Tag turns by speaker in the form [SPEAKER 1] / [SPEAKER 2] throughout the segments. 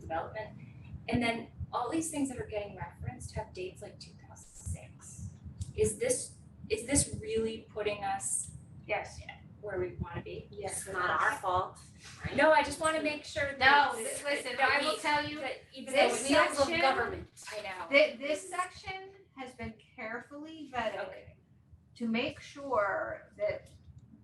[SPEAKER 1] development. And then all these things that are getting referenced have dates like two thousand six. Is this, is this really putting us
[SPEAKER 2] Yes.
[SPEAKER 1] where we wanna be?
[SPEAKER 2] Yes.
[SPEAKER 3] It's not our fault.
[SPEAKER 1] No, I just wanna make sure that.
[SPEAKER 2] No, th- listen, I will tell you,
[SPEAKER 1] That even though
[SPEAKER 2] this
[SPEAKER 1] it's not,
[SPEAKER 3] wheels
[SPEAKER 2] section-
[SPEAKER 3] of government.
[SPEAKER 1] I know.
[SPEAKER 2] thi- this section has been carefully vetted
[SPEAKER 1] Okay.
[SPEAKER 2] to make sure that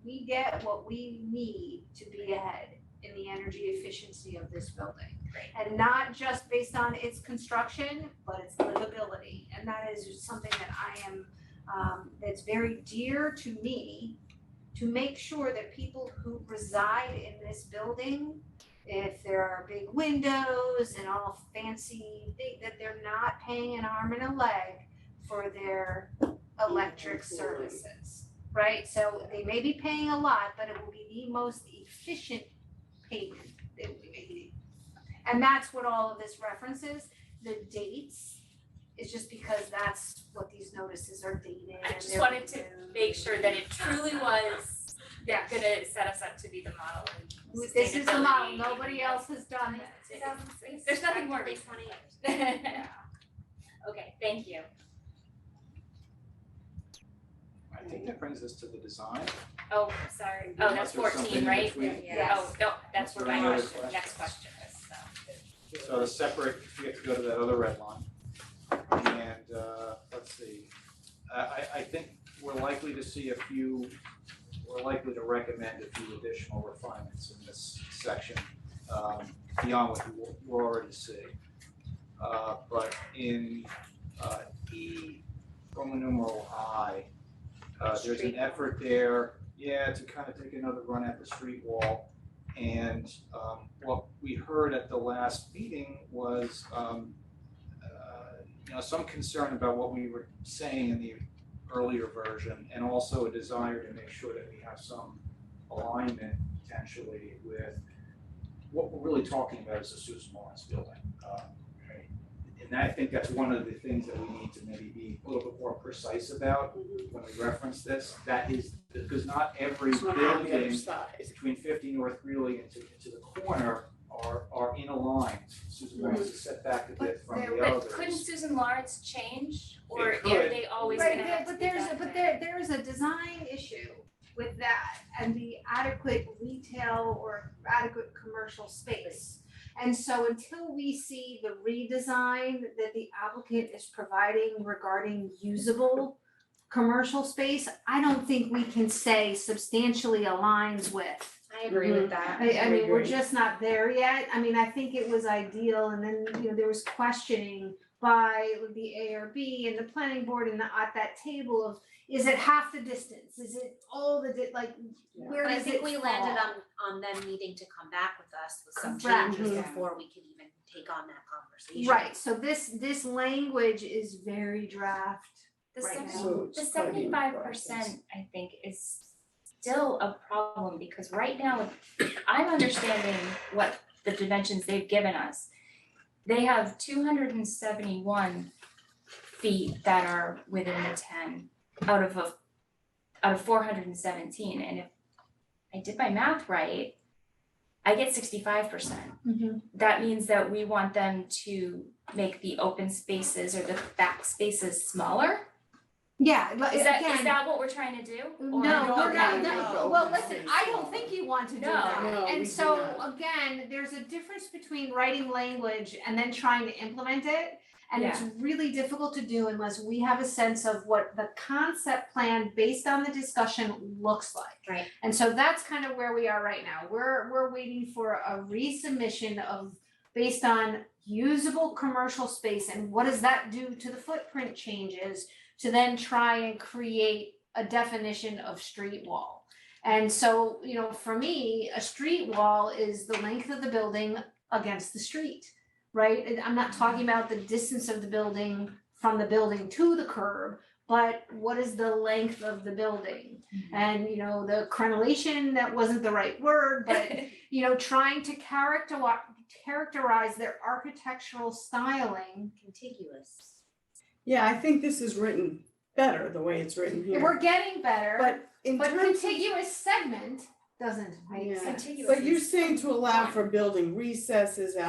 [SPEAKER 2] we get what we need to be ahead in the energy efficiency of this building.
[SPEAKER 1] Great.
[SPEAKER 2] And not just based on its construction, but its livability, and that is something that I am, um, that's very dear to me. To make sure that people who reside in this building, if there are big windows and all fancy, thi- that they're not paying an arm and a leg for their electric
[SPEAKER 3] Absolutely.
[SPEAKER 2] services right? So they may be paying a lot, but it will be the most efficient payment that we may need. And that's what all of this references, the dates, is just because that's what these notices are dated
[SPEAKER 1] I
[SPEAKER 2] and
[SPEAKER 1] just
[SPEAKER 2] they're
[SPEAKER 1] wanted to
[SPEAKER 2] renewed.
[SPEAKER 1] Make sure that it truly was
[SPEAKER 2] Yeah.
[SPEAKER 1] gonna set us up to be the model and
[SPEAKER 2] This is the model,
[SPEAKER 1] sustainability,
[SPEAKER 2] nobody
[SPEAKER 1] even
[SPEAKER 2] else has done it.
[SPEAKER 1] though- There's nothing more recent. Okay, thank you.
[SPEAKER 4] I think that brings us to the design.
[SPEAKER 1] Oh, sorry. Oh, that's
[SPEAKER 4] Unless there's something
[SPEAKER 1] fourteen,
[SPEAKER 4] in
[SPEAKER 1] right?
[SPEAKER 4] between.
[SPEAKER 2] Yes.
[SPEAKER 1] Oh, no, that's where my
[SPEAKER 4] Any other
[SPEAKER 1] question, next
[SPEAKER 4] questions?
[SPEAKER 1] question is, so.
[SPEAKER 4] So the separate, you have to go to that other red line. And uh, let's see, I, I, I think we're likely to see a few, we're likely to recommend a few additional refinements in this section um, beyond what you you already see. Uh, But in uh, E, Roman numeral I, uh, there's an
[SPEAKER 1] Street.
[SPEAKER 4] effort there, yeah, to kind of take another run at the street wall. And um what we heard at the last meeting was um uh you know, some concern about what we were saying in the earlier version and also a desire to make sure that we have some alignment potentially with what we're really talking about is the Susan Lawrence building. Uh, right? And I think that's one of the things that we need to maybe be a little bit more precise about when we reference this. That is, because not every
[SPEAKER 3] It's not on the other
[SPEAKER 4] building
[SPEAKER 3] side.
[SPEAKER 4] between fifty North Greeley and to, to the corner are, are in a line. Susan Lawrence is set back a bit from the
[SPEAKER 1] Mm-hmm. But
[SPEAKER 4] others.
[SPEAKER 1] couldn't Susan Lawrence change, or
[SPEAKER 4] It
[SPEAKER 1] are
[SPEAKER 4] could.
[SPEAKER 1] they always
[SPEAKER 2] Right,
[SPEAKER 1] gonna
[SPEAKER 2] there-
[SPEAKER 1] have to
[SPEAKER 2] but
[SPEAKER 1] be
[SPEAKER 2] there's,
[SPEAKER 1] that
[SPEAKER 2] but
[SPEAKER 1] way?
[SPEAKER 2] there, there is a design issue with that and the adequate retail or adequate commercial space. And so until we see the redesign that the applicant is providing regarding usable commercial space, I don't think we can say substantially aligns with.
[SPEAKER 5] I agree with that.
[SPEAKER 2] I I
[SPEAKER 3] I
[SPEAKER 2] mean, we're
[SPEAKER 3] agree.
[SPEAKER 2] just not there yet, I mean, I think it was ideal, and then, you know, there was questioning by the ARB and the planning board and the, at that table of, is it half the distance, is it all the, di- like,
[SPEAKER 3] Yeah.
[SPEAKER 2] where
[SPEAKER 5] But I
[SPEAKER 2] does it
[SPEAKER 5] think we landed
[SPEAKER 2] fall?
[SPEAKER 5] on on them needing to come back with us with some
[SPEAKER 2] Correct. Mm-hmm.
[SPEAKER 5] changes
[SPEAKER 3] Mhm.
[SPEAKER 5] before we can even take on that conversation.
[SPEAKER 2] Right, so this, this language is very draft,
[SPEAKER 1] The
[SPEAKER 2] right
[SPEAKER 1] seven-
[SPEAKER 2] now.
[SPEAKER 3] So
[SPEAKER 1] The
[SPEAKER 3] it's gotta be
[SPEAKER 1] seventy-five
[SPEAKER 3] processed.
[SPEAKER 1] percent, I think, is still a problem, because right now, I'm understanding what the dimensions they've given us. They have two hundred and seventy-one feet that are within the ten out of a, out of four hundred and seventeen, and if I did my math right, I get sixty-five percent that means that we want them to make the open spaces or the back spaces smaller?
[SPEAKER 2] Yeah, but
[SPEAKER 1] Is that, is
[SPEAKER 2] again-
[SPEAKER 1] that what we're trying to do?
[SPEAKER 2] No,
[SPEAKER 1] Or-
[SPEAKER 2] no, no,
[SPEAKER 1] Okay.
[SPEAKER 2] no, well, listen, I don't think you want to do
[SPEAKER 1] No.
[SPEAKER 2] that.
[SPEAKER 3] No, we
[SPEAKER 2] And
[SPEAKER 3] do
[SPEAKER 2] so,
[SPEAKER 3] not.
[SPEAKER 2] again, there's a difference between writing language and then trying to implement it. And it's really difficult to do unless we have a sense of what the concept plan based on the discussion looks like.
[SPEAKER 5] Right.
[SPEAKER 2] And so that's kind of where we are right now. We're, we're waiting for a resubmission of, based on usable commercial space and what does that do to the footprint changes? to then try and create a definition of street wall. And so, you know, for me, a street wall is the length of the building against the street, right? And I'm not talking about the distance of the building from the building to the curb, but what is the length of the building?
[SPEAKER 3] Mm-hmm.
[SPEAKER 2] And, you know, the crenellation, that wasn't the right word, but you know, trying to character characterize their architectural styling.
[SPEAKER 5] Contiguous.
[SPEAKER 3] Yeah, I think this is written better the way it's written here.
[SPEAKER 2] We're getting better.
[SPEAKER 3] But in
[SPEAKER 2] But
[SPEAKER 3] terms,
[SPEAKER 2] contiguous segment doesn't make
[SPEAKER 3] Yeah.
[SPEAKER 2] sense.
[SPEAKER 1] Contiguous
[SPEAKER 3] but
[SPEAKER 1] is-
[SPEAKER 3] you're saying to allow for building recesses